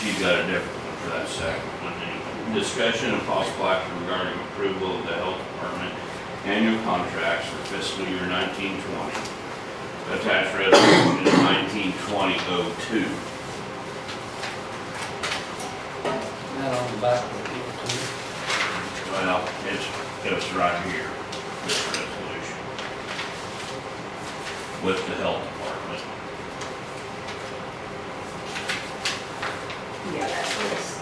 She got a different one for that second one. Any Discussion and possible action regarding approval of the health department annual contracts for fiscal year nineteen twenty. Attached resolution nineteen twenty oh two. Not on the back of the people too. Well, it's, it's right here, this resolution. With the health department. Yeah, that was,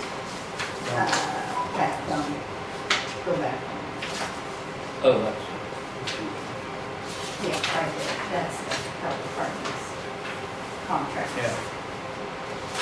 uh, back on, go back. Oh, that's. Yeah, right there, that's the health department's contract. Yeah.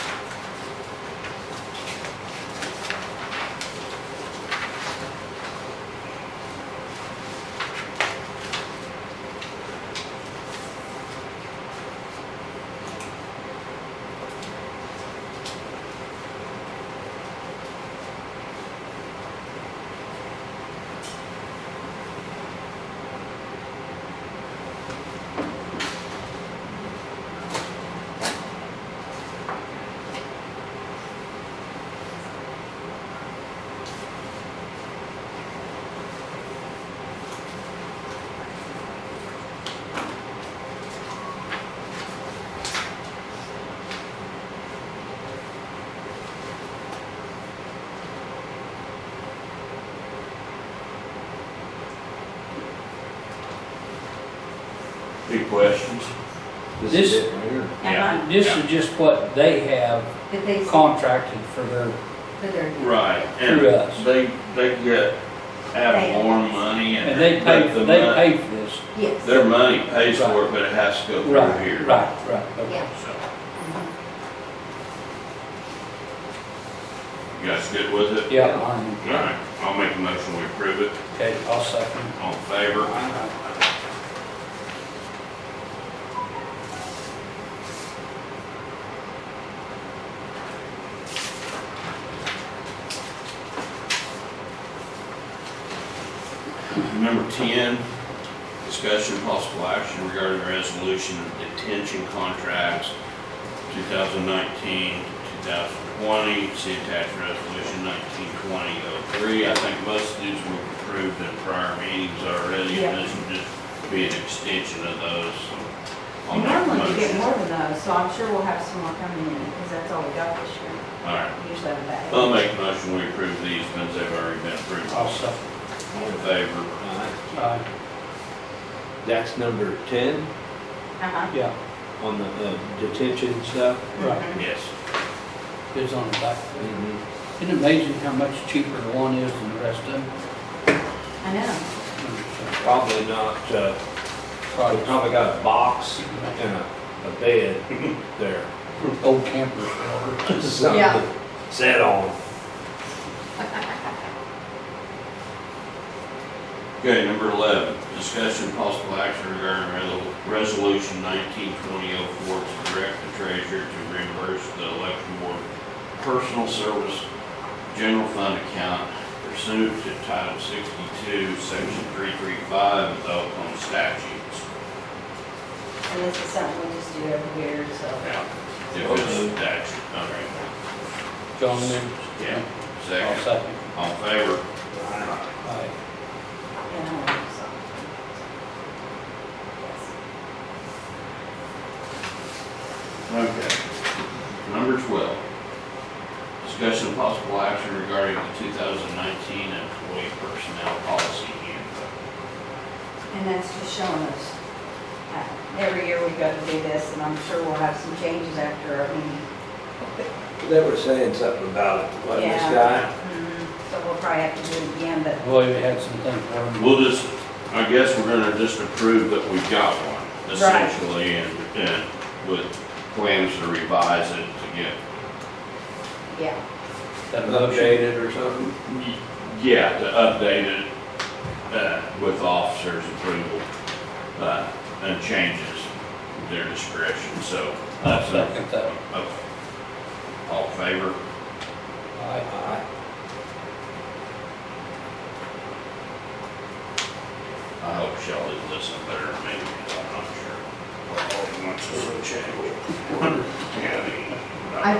Any questions? This- it right here. And Yeah. This is just what they have I, did they, for contracted for their, their, Right, and Through us. they, they get ad valorem money and. and they pay, but the they mon- pay for this. yes. Their money pays for it, but it has to go through Right, here. right, right. okay. Yeah. So, Mhm. you guys good with it? Yeah, I'm- All right, I'll make a motion, we approve it, okay, I'll second. all in favor? Number ten, discussion possible action regarding resolution of detention contracts, 2019-2020. see attached resolution nineteen twenty oh three. I think most of these were approved in prior meetings already, and this would just be an extension of those, so. I'll And make a Normally we get motion. more than those, so I'm sure we'll have some more coming in, because that's all we got this year. All right, Usually I'm back. I'll make a motion, we approve these, ones they've already been approved. I'll All second. in favor? Alright, Uh, That's number ten Uh-huh. yeah, on the uh, detention stuff. right, Yes. it's on the back. Mhm. Isn't it amazing how much cheaper the one is than the rest of them? I know. Probably not, uh, we probably got a box and a, a bed there. Old campers. Yeah. Something set on. Okay, number 11, discussion possible action regarding re- resolution 192004 to direct the treasurer to reimburse the election board personal service general fund account pursuant to Title 62, Section 335 of the Oklahoma statutes. And this is something we just do every year, so. Now, If it's statute, all right. John Lynn? Yeah. I'll Second, second. all in favor? Alright. Aye. And I know, so. Yes. Okay. Number 12, discussion of possible action regarding the 2019 employee personnel policy handbook. And that's just showing us, uh, every year we go to do this, and I'm sure we'll have some changes after our meeting. They were saying something about it, wasn't this Yeah. guy? So we'll probably have to do it again, but Well, you had some things for him. We'll just, I guess we're gonna just approve that we've got one, essentially, and, and with plans to revise it to get, yeah, That a motion? Updated or something? yeah, to update it, uh, with officers' approval, uh, and changes, their discretion, so. I'll second that. Okay. All in favor?